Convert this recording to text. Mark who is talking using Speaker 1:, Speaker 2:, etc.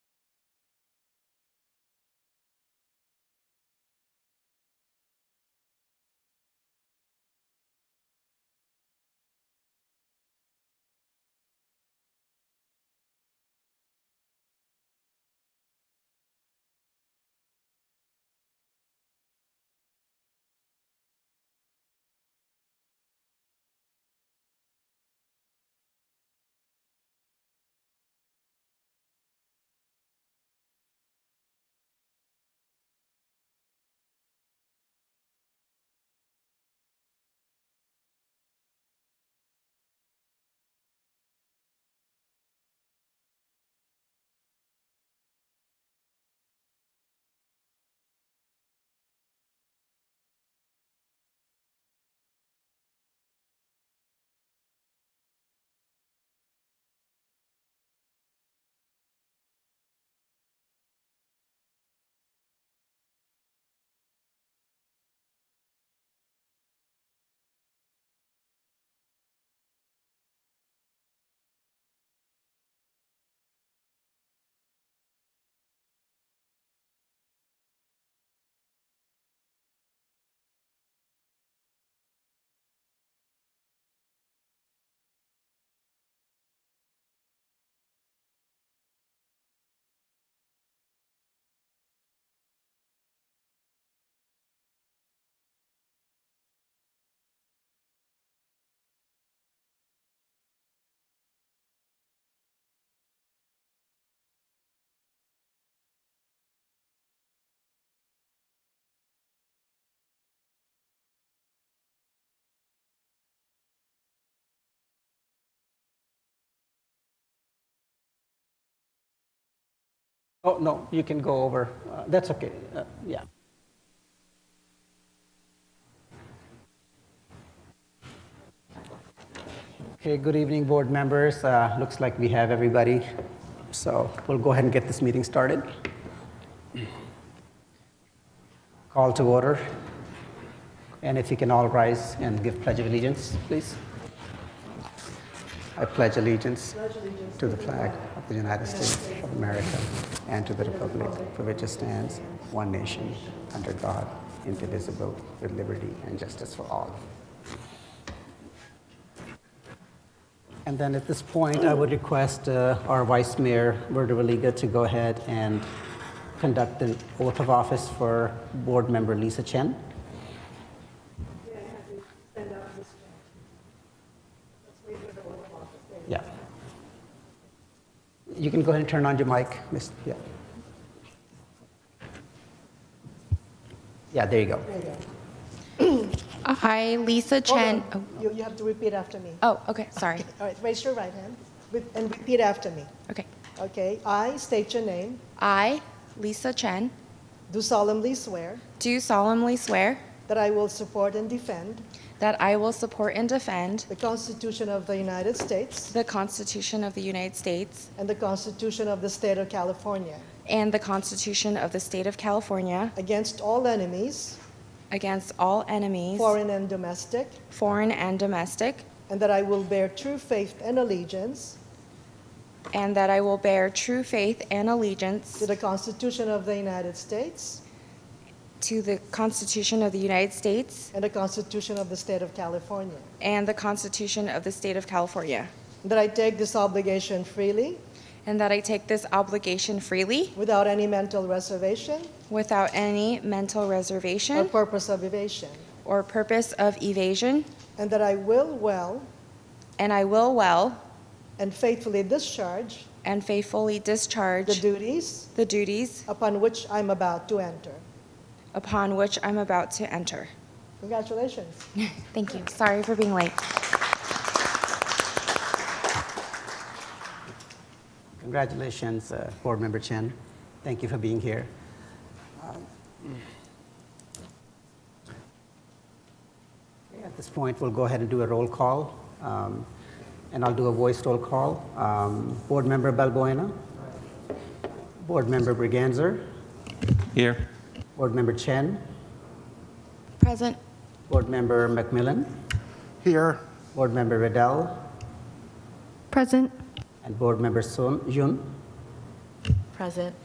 Speaker 1: Oh, no, you can go over. Uh, That's okay. Uh, Yeah. Okay, good evening, board members. Uh, Looks like we have everybody. So we'll go ahead and get this meeting started. Call to order. And if you can all rise and give pledge of allegiance, please. I pledge allegiance to the flag of the United States of America and to the republic for which it stands, one nation, under God, indivisible, with liberty and justice for all. And then at this point, I would request uh, our Vice Mayor, Verda Valiga, to go ahead and conduct the oath of office for Board Member Lisa Chen. Yeah. You can go ahead and turn on your mic, Miss, yeah. Yeah, there you go.
Speaker 2: I, Lisa Chen.
Speaker 3: Hold on. You, you have to repeat after me.
Speaker 2: Oh, oh, okay, sorry.
Speaker 3: All right, raise your right hand with- and repeat after me.
Speaker 2: Okay.
Speaker 3: Okay, I state your name,
Speaker 2: I, Lisa Chen,
Speaker 3: do solemnly swear
Speaker 2: do solemnly swear
Speaker 3: that I will support and defend
Speaker 2: that I will support and defend
Speaker 3: the Constitution of the United States
Speaker 2: the Constitution of the United States
Speaker 3: and the Constitution of the State of California
Speaker 2: and the Constitution of the State of California
Speaker 3: against all enemies,
Speaker 2: against all enemies,
Speaker 3: foreign and domestic,
Speaker 2: foreign and domestic,
Speaker 3: and that I will bear true faith and allegiance
Speaker 2: and that I will bear true faith and allegiance
Speaker 3: to the Constitution of the United States
Speaker 2: to the Constitution of the United States
Speaker 3: and the Constitution of the State of California,
Speaker 2: and the Constitution of the State of California,
Speaker 3: that I take this obligation freely
Speaker 2: and that I take this obligation freely
Speaker 3: without any mental reservation
Speaker 2: without any mental reservation.
Speaker 3: or purpose of evasion,
Speaker 2: or purpose of evasion,
Speaker 3: and that I will well
Speaker 2: and I will well
Speaker 3: and faithfully discharge
Speaker 2: and faithfully
Speaker 3: the
Speaker 2: discharge
Speaker 3: duties
Speaker 2: the duties
Speaker 3: upon which I'm about to enter.
Speaker 2: upon which I'm about to enter.
Speaker 3: Congratulations.
Speaker 2: Thank you. Sorry for being late.
Speaker 1: Congratulations, uh, Board Member Chen. Thank you for being here. Um, Okay, At this point, we'll go ahead and do a roll call, um, and I'll do a voice roll call. Um, Board Member Balbuena? Board Member Briganzer?
Speaker 4: Here.
Speaker 1: Board Member Chen?
Speaker 2: Present.
Speaker 1: Board Member McMillan?
Speaker 4: Here.
Speaker 1: Board Member Riddell?
Speaker 2: Present.
Speaker 1: And Board Member Sun Yun?
Speaker 2: Present.